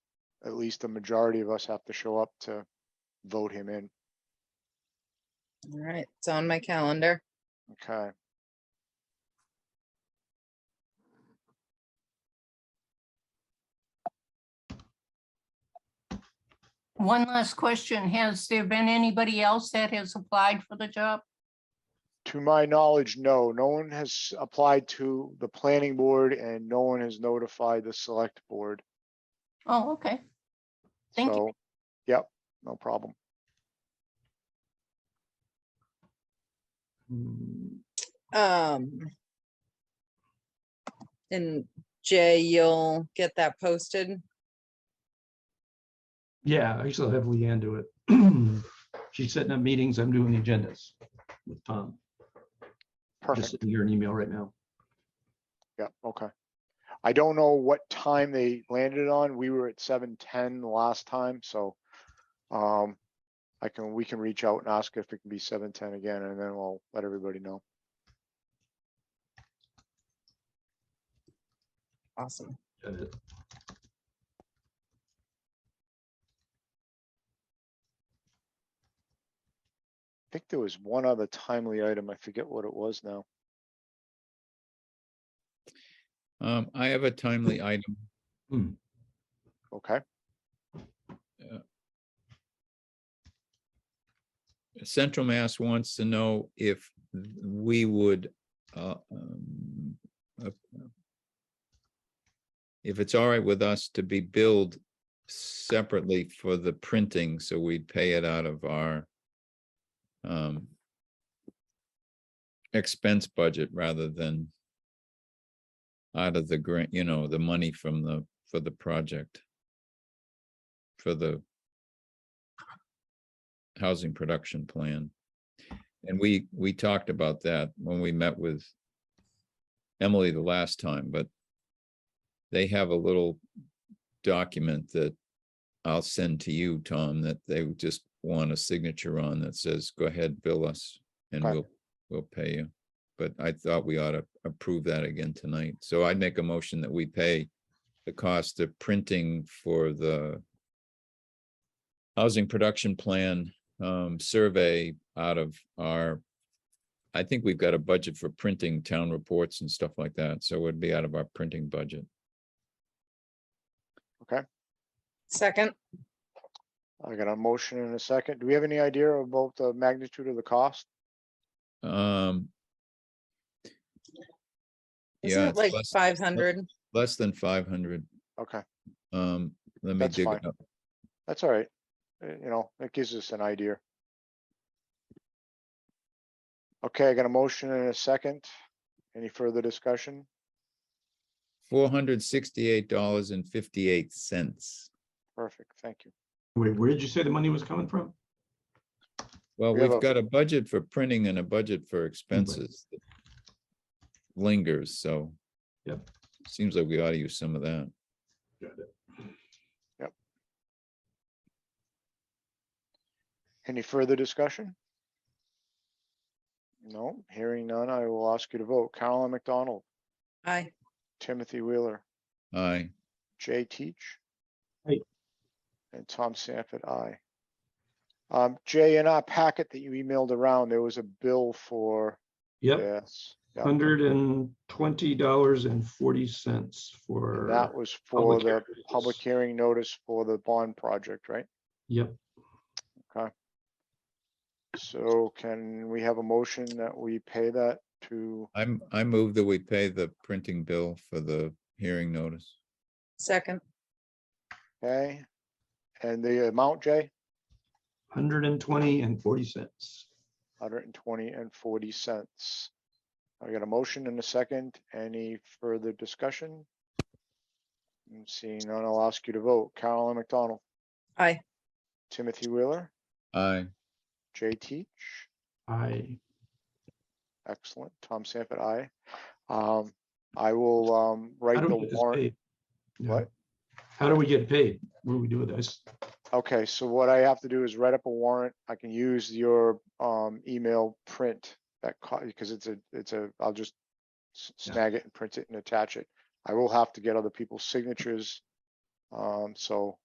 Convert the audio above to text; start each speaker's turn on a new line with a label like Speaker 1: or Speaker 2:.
Speaker 1: at least the majority of us have to show up to vote him in.
Speaker 2: All right, it's on my calendar.
Speaker 1: Okay.
Speaker 3: One last question. Has there been anybody else that has applied for the job?
Speaker 1: To my knowledge, no, no one has applied to the planning board and no one has notified the select board.
Speaker 3: Oh, okay. Thank you.
Speaker 1: So, yep, no problem.
Speaker 4: Mm,
Speaker 2: Um. And Jay, you'll get that posted.
Speaker 4: Yeah, I still have Leanne do it. She's setting up meetings. I'm doing the agendas with Tom. Just
Speaker 1: Perfect.
Speaker 4: sending her an email right now.
Speaker 1: Yep, okay. I don't know what time they landed on. We were at seven ten last time, so um, I can, we can reach out and ask if it can be seven ten again and then we'll let everybody know.
Speaker 2: Awesome.
Speaker 4: Got it.
Speaker 1: I think there was one other timely item. I forget what it was now.
Speaker 5: Um, I have a timely item.
Speaker 1: Okay,
Speaker 5: Central Mass wants to know if we would, uh, um, uh, if it's all right with us to be billed separately for the printing, so we pay it out of our um, expense budget rather than out of the grant, you know, the money from the, for the project, for the housing production plan. And we, we talked about that when we met with Emily the last time, but they have a little document that I'll send to you, Tom, that they would just want a signature on that says, go ahead, bill us and
Speaker 1: Okay.
Speaker 5: we'll, we'll pay you. But I thought we ought to approve that again tonight. So I'd make a motion that we pay the cost of printing for the housing production plan um, survey out of our, I think we've got a budget for printing town reports and stuff like that, so it would be out of our printing budget.
Speaker 2: Second,
Speaker 1: I got a motion in a second. Do we have any idea about the magnitude of the cost?
Speaker 5: Um.
Speaker 2: isn't
Speaker 5: Yeah,
Speaker 2: it
Speaker 5: it's
Speaker 2: like
Speaker 5: less,
Speaker 2: five hundred?
Speaker 5: less than five hundred,
Speaker 1: Okay,
Speaker 5: um, let me
Speaker 1: That's
Speaker 5: dig
Speaker 1: fine.
Speaker 5: it up.
Speaker 1: that's all right. Uh, You know, that gives us an idea. Okay, I got a motion in a second. Any further discussion?
Speaker 5: Four hundred sixty-eight dollars and fifty-eight cents.
Speaker 1: Perfect, thank you.
Speaker 4: Wait, where did you say the money was coming from?
Speaker 5: Well,
Speaker 1: We have
Speaker 5: we've
Speaker 1: a-
Speaker 5: got a budget for printing and a budget for expenses. that Lingers, so.
Speaker 4: Yep.
Speaker 5: Seems like we ought to use some of that.
Speaker 1: Any further discussion? No, hearing none, I will ask you to vote. Carolyn McDonald,
Speaker 2: Aye.
Speaker 1: Timothy Wheeler,
Speaker 5: Aye.
Speaker 1: Jay Teach.
Speaker 4: Aye.
Speaker 1: And Tom Sanford, aye. Um, Jay, in our packet that you emailed around, there was a bill for
Speaker 4: Yep,
Speaker 1: this. yeah, and
Speaker 4: hundred and twenty dollars and forty cents for.
Speaker 1: That was for
Speaker 4: public
Speaker 1: the
Speaker 4: hearings.
Speaker 1: public hearing notice for the bond project, right?
Speaker 4: Yep,
Speaker 1: So can we have a motion that we pay that to,
Speaker 5: I'm, I move that we pay the printing bill for the hearing notice.
Speaker 2: Second,
Speaker 1: okay? And the amount, Jay?
Speaker 4: hundred and twenty and forty cents.
Speaker 1: hundred and twenty and forty cents. I got a motion and a second. Any further discussion? And Seeing none, I'll ask you to vote. Carolyn McDonald,
Speaker 2: aye.
Speaker 1: Timothy Wheeler,
Speaker 5: Aye.
Speaker 1: Jay Teach,
Speaker 4: I,
Speaker 1: excellent, Tom Sanford, I. Um, I will, um, write
Speaker 4: how do
Speaker 1: the
Speaker 4: we get this
Speaker 1: warrant.
Speaker 4: paid? Yeah.
Speaker 1: What?
Speaker 4: How do we get paid? What do we do with this?
Speaker 1: Okay, so what I have to do is write up a warrant. I can use your, um, email print that, co- because it's a, it's a, I'll just s-
Speaker 4: Yeah.
Speaker 1: snag it and print it and attach it. I will have to get other people's signatures. Um, so